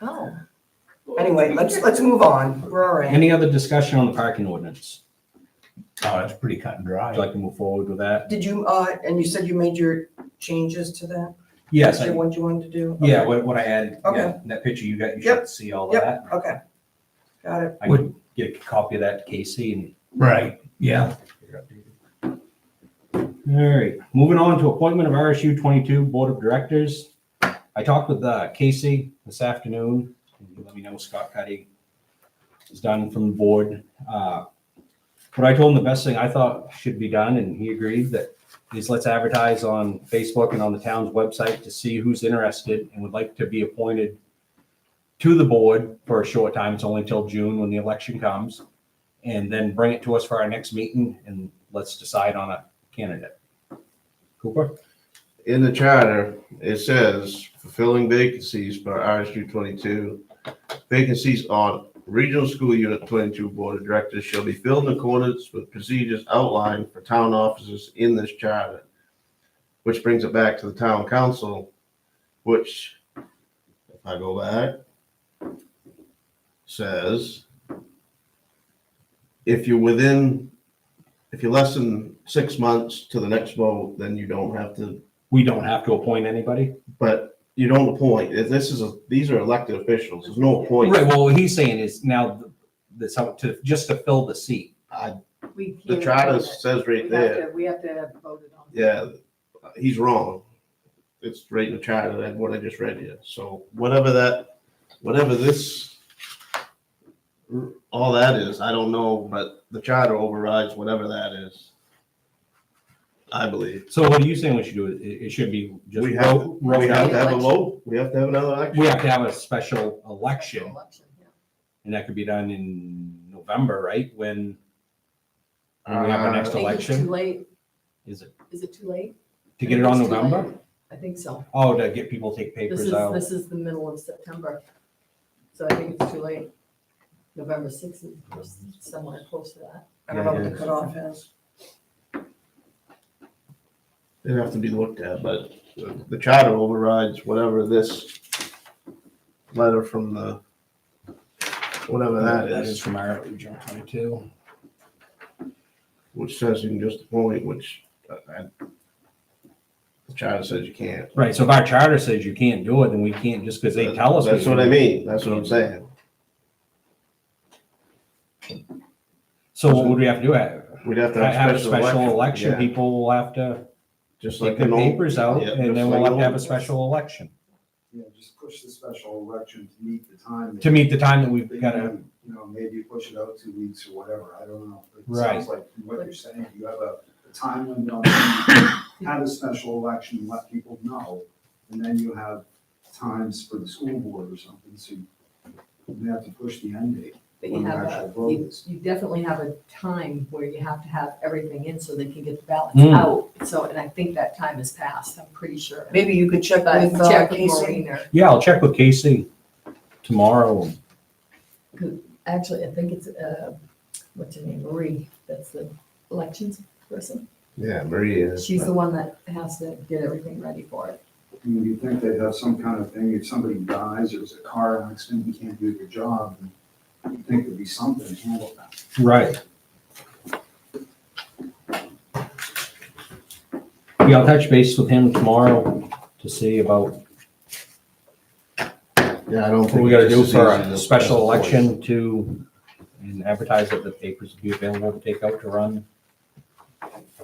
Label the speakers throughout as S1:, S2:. S1: Oh. Anyway, let's, let's move on. We're all right.
S2: Any other discussion on the parking ordinance?
S3: Oh, that's pretty cut and
S2: Would
S3: dry.
S2: you like to move forward with that?
S1: Did you, uh, and you said you made your changes to that?
S2: Yes,
S1: Is
S2: I-
S1: that What you wanted to do?
S2: yeah, what, what I added, yeah,
S1: Okay.
S2: that picture you got, you
S1: Yep.
S2: should see all of
S1: Yep.
S2: that.
S1: Okay. Got it.
S2: I would get a copy of that to Casey and
S3: Right, yeah.
S2: All right, moving on to appointment of RSU twenty-two Board of Directors. I talked with uh, Casey this afternoon. He Let me know Scott Cuddy is done from the board. Uh, But I told him the best thing I thought should be done, and he agreed that is let's advertise on Facebook and on the town's website to see who's interested and would like to be appointed to the board for a short time. It's only till June when the election comes. And then bring it to us for our next meeting and let's decide on a candidate. Cooper?
S4: in the charter, it says fulfilling vacancies for RSU twenty-two. Vacancies on regional school unit twenty-two board of directors shall be filled in accordance with procedures outlined for town offices in this charter. Which brings it back to the town council, which, if I go back, says if you're within, if you're less than six months to the next vote, then you don't have to
S2: We don't have to appoint anybody?
S4: but you don't appoint. If This is a, these are elected officials. There's no appointment.
S2: Right, well, what he's saying is now that's how to, just to fill the seat.
S5: We
S4: The
S5: can't
S4: charter
S5: do that.
S4: says
S5: We have
S4: right there,
S5: to- We have to have voted on. it.
S4: yeah, he's wrong. It's right in the charter, that what I just read you. So whatever that, whatever this, all that is, I don't know, but the charter overrides whatever that is. I believe.
S2: So what are you saying we should do? It, it should be just.
S4: We have,
S2: roll- roll
S4: we
S2: down.
S4: have to have a vote. We have to have another election.
S2: We have to have a special election
S5: Election, yeah.
S2: and that could be done in November, right? When when we have
S4: Uh,
S2: our next
S5: I think it's
S2: election?
S5: Too late,
S2: is it,
S5: is it too late?
S2: to get it on
S5: I think it's too
S2: November?
S5: late. I think so.
S2: Oh, to get people to take
S5: This
S2: papers
S5: is,
S2: out.
S5: this is the middle of September, so I think it's too late. November sixth is somewhere close to that.
S1: I don't know what the cutoff is.
S4: It'd have to be looked at, but the charter overrides whatever this letter from the, whatever that is,
S2: from our region twenty-two.
S4: which says you can just appoint, which uh, I- the charter says you can't.
S2: Right, so if our charter says you can't do it, then we can't just because they tell us. we
S4: That's what I
S2: can't.
S4: mean. That's what I'm saying.
S2: So what would we have to do? Have
S4: We'd have to
S2: have a special
S4: Yeah,
S2: election, people will have to.
S4: Just like
S2: take the
S4: an old,
S2: papers out,
S4: yeah,
S2: and
S4: just
S2: then we'll
S4: like
S2: have to
S4: an
S2: have a
S4: old-
S2: special election
S6: Yeah, just push the special election to meet the time.
S2: to meet the time that we've
S6: They
S2: got to,
S6: can, You know, maybe push it out two weeks or whatever, I don't know. It
S2: Right.
S6: Sounds like from what you're saying, you have a a time limit on when you have a special election, and let people know, and then you have times for the school board or something, so you may have to push the end date.
S5: But you
S6: When the
S5: have,
S6: actual
S5: a-
S6: vote
S5: you
S6: is.
S5: you definitely have a time where you have to have everything in so they can get the ballots
S2: Mm.
S5: out. So, and I think that time has passed, I'm pretty sure.
S1: Maybe you could check
S5: But
S1: with uh,
S5: check with
S1: Casey.
S5: Maureen or-
S2: yeah, I'll check with Casey tomorrow.
S5: Actually, I think it's, uh, what's her name, Marie, that's the elections person.
S4: Yeah, Maria. is,
S5: She's
S4: but-
S5: the one that has to get everything ready for it.
S6: I mean, you think they'd have some kind of thing, if somebody dies, or it's a car accident, you can't do your job, and you think there'd be something to handle that.
S2: Right. Yeah, I'll touch base with him tomorrow to see about
S4: Yeah, I don't think.
S2: what we gotta
S4: it's
S2: do
S4: as
S2: for
S4: easy
S2: a
S4: as-
S2: special
S4: as appoint.
S2: election to, and advertise that the papers will be available to take out to run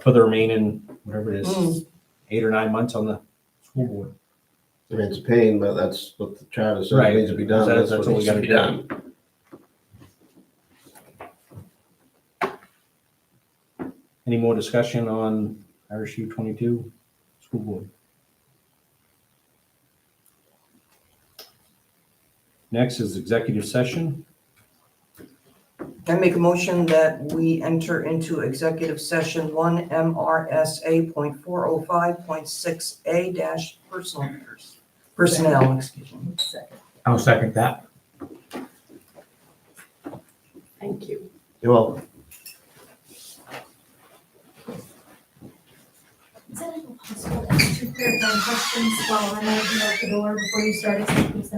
S2: for the remaining, whatever it is, eight or nine months on the school board.
S4: I mean, it's a pain, but that's what the charter
S2: Right.
S4: says needs to be done.
S2: That's- that's
S4: That's what
S2: what we
S4: needs to
S2: gotta
S4: be
S2: do.
S4: done.
S2: Any more discussion on RSU twenty-two, school board? Next is executive session.
S1: I make a motion that we enter into executive session one MRSA point four oh five point six A dash personal. Personnel, excuse me.
S5: Second.
S3: I'll second that.
S5: Thank you.
S4: You're welcome.
S7: It's a little Just two clarifying questions while I'm out here at the door before you start, if you please.